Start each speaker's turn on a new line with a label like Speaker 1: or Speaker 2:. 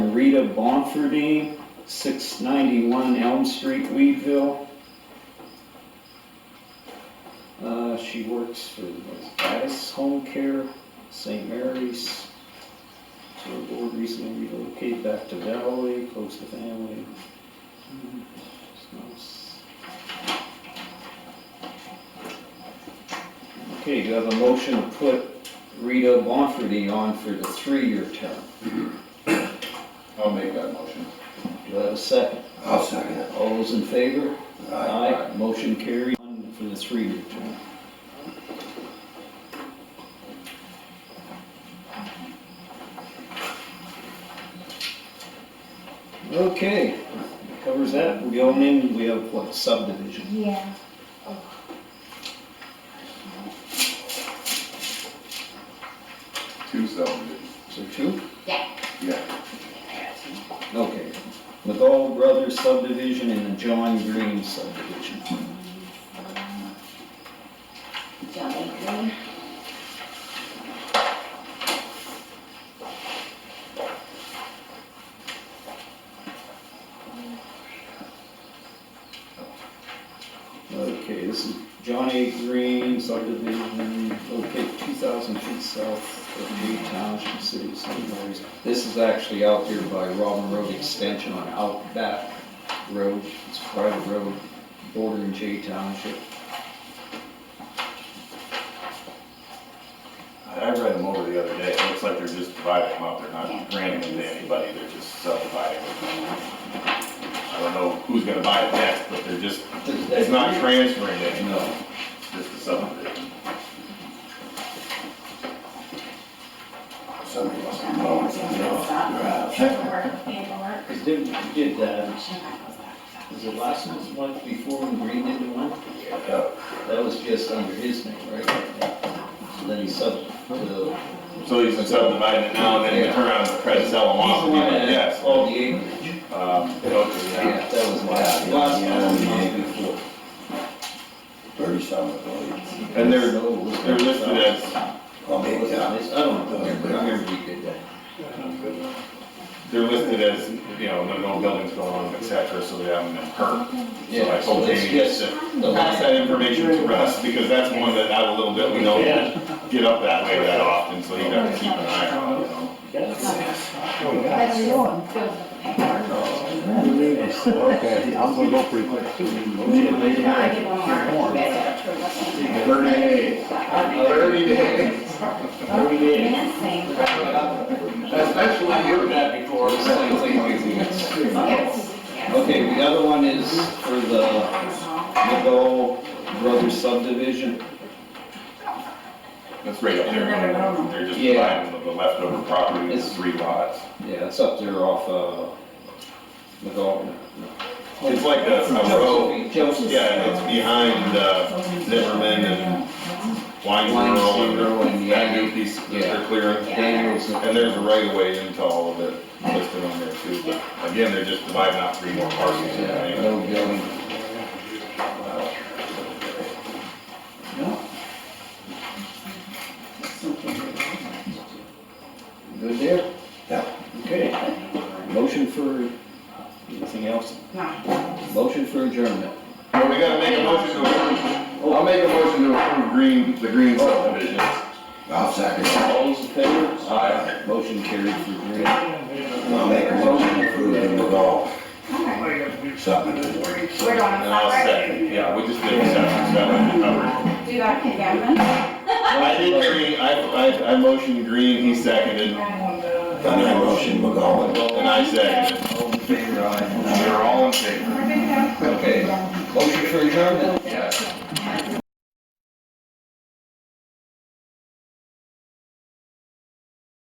Speaker 1: Rita Bonfordine, 691 Elm Street, Weedville. Uh, She works for Addis Home Care, St. Mary's. So her board recently relocated back to Valley, close to family. Hmm, it's nice. Okay, do you have a motion to put Rita Bonfordine on for the three-year term?
Speaker 2: I'll make that motion.
Speaker 1: Do I have a second?
Speaker 3: I'll second it.
Speaker 1: All those in favor?
Speaker 3: Aye.
Speaker 1: Motion carried on for the three-year term. Okay, covers that. We're going in, we have what subdivision?
Speaker 4: Yeah.
Speaker 2: Two subdivisions,
Speaker 1: So two?
Speaker 2: yeah.
Speaker 1: Okay. McGall Brothers subdivision and the John Green subdivision.
Speaker 4: Johnny Green.
Speaker 1: Okay, this is Johnny Green subdivision, located 2,000 feet south of New Township City, St. Mary's. This is actually out here by Robin Road Extension on Outback Road. It's a private road bordering J Township.
Speaker 5: I read them over the other day, it looks like they're just dividing them up, they're not granting them to anybody, they're just subdividing them. I don't know who's gonna buy it next, but they're just, it's not transferring it, no, it's just a subdivision.
Speaker 3: Somebody must have
Speaker 4: Johnny
Speaker 3: known.
Speaker 4: Green's on the stop. Paperwork, paperwork.
Speaker 1: Because did, we did that,
Speaker 4: She might go stop.
Speaker 1: was it last month, month before when Green did the one? That was just under his name, right? So then he sub, to the.
Speaker 5: So he's subdividing it now, and then they turn around and try to sell them off, and you're like, yes.
Speaker 1: All Oh, the acreage.
Speaker 5: Um,
Speaker 1: Yeah,
Speaker 5: okay,
Speaker 1: that was last,
Speaker 3: Yeah,
Speaker 1: last
Speaker 3: yeah,
Speaker 1: month,
Speaker 3: yeah.
Speaker 1: month before.
Speaker 3: Thirty something, I believe.
Speaker 5: yeah. And they're,
Speaker 1: No, it was-
Speaker 5: they're listed as,
Speaker 3: Well,
Speaker 1: It
Speaker 3: maybe,
Speaker 1: was
Speaker 3: yeah.
Speaker 1: I don't remember, I remember we did that.
Speaker 5: they're listed as, you know, no- no buildings going on, et cetera, so they haven't been hurt. So I
Speaker 1: Yeah, so
Speaker 5: told
Speaker 1: it's
Speaker 5: Jamie, yes,
Speaker 1: just
Speaker 5: sir.
Speaker 1: the
Speaker 5: pass that
Speaker 1: line.
Speaker 5: information to us, because that's one that out a little bit, we don't get up that way that often, so you gotta keep an eye on, it, you know.
Speaker 4: That's just filled with the paperwork.
Speaker 6: Okay, I'm gonna go pretty quick.
Speaker 4: I get one more. You guys have to listen.
Speaker 2: Thirty days. Thirty days.
Speaker 4: Minutes, same.
Speaker 2: Especially you.
Speaker 1: that before.
Speaker 4: Yes, yes.
Speaker 1: Okay, the other one is for the McDowell Brothers subdivision.
Speaker 5: That's right up there, they're just buying the leftover property, it's three lots.
Speaker 1: Yeah, it's up there off, uh, McDowell.
Speaker 5: It's like a, a row,
Speaker 1: Josephine.
Speaker 5: yeah, it's behind, uh, Zimmerman and Wine
Speaker 1: Wine
Speaker 5: Girl
Speaker 1: Girl
Speaker 5: and
Speaker 1: and
Speaker 5: that
Speaker 1: Yang.
Speaker 5: new piece that
Speaker 1: Yeah.
Speaker 5: they're clearing.
Speaker 1: Daniels.
Speaker 5: And there's a right of way into all of it listed on there too, but again, they're just dividing out three more parcels. you
Speaker 1: Yeah,
Speaker 5: know.
Speaker 1: no building.
Speaker 5: Uh,
Speaker 1: Good there?
Speaker 3: Yeah.
Speaker 1: Okay. Motion for, anything else?
Speaker 4: No.
Speaker 1: Motion for adjournment.
Speaker 5: Well, we gotta make a motion to approve, I'll make a motion to approve green, the green subdivision.
Speaker 3: I'll second it.
Speaker 1: All those in favor? Aye. Motion carried for adjournment.
Speaker 3: I'll make a motion to approve the McGall
Speaker 4: Okay.
Speaker 3: supplement.
Speaker 4: We're going
Speaker 5: And I'll
Speaker 4: to.
Speaker 5: second, yeah, we just did a section seven, cover.
Speaker 4: Do you want to pick Evan?
Speaker 5: I did green, I, I, I motioned green, he seconded,
Speaker 3: I make a motion, McGall.
Speaker 5: and I seconded.
Speaker 1: All in favor, aye.
Speaker 5: We're all in favor.
Speaker 1: Okay, motion for adjournment.
Speaker 5: Yes.